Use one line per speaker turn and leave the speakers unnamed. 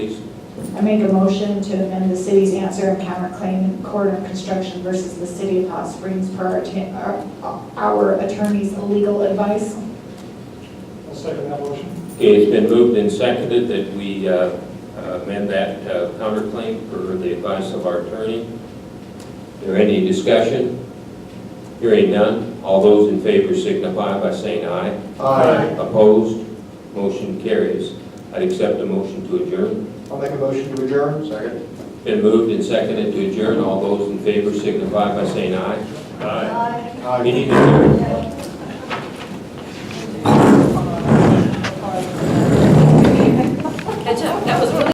I make a motion to amend the city's answer and counterclaim in Corridor Construction versus the City of Hot Springs per our atta- our our attorney's legal advice.
I'll second that motion.
Okay, it's been moved and seconded that we uh, amend that uh, counterclaim for the advice of our attorney. Is there any discussion? Hearing none, all those in favor signify by saying aye.
Aye.
Opposed, motion carries. I'd accept a motion to adjourn.
I'll make a motion to adjourn. Second.
Been moved and seconded to adjourn, all those in favor signify by saying aye. Aye. Meeting adjourned.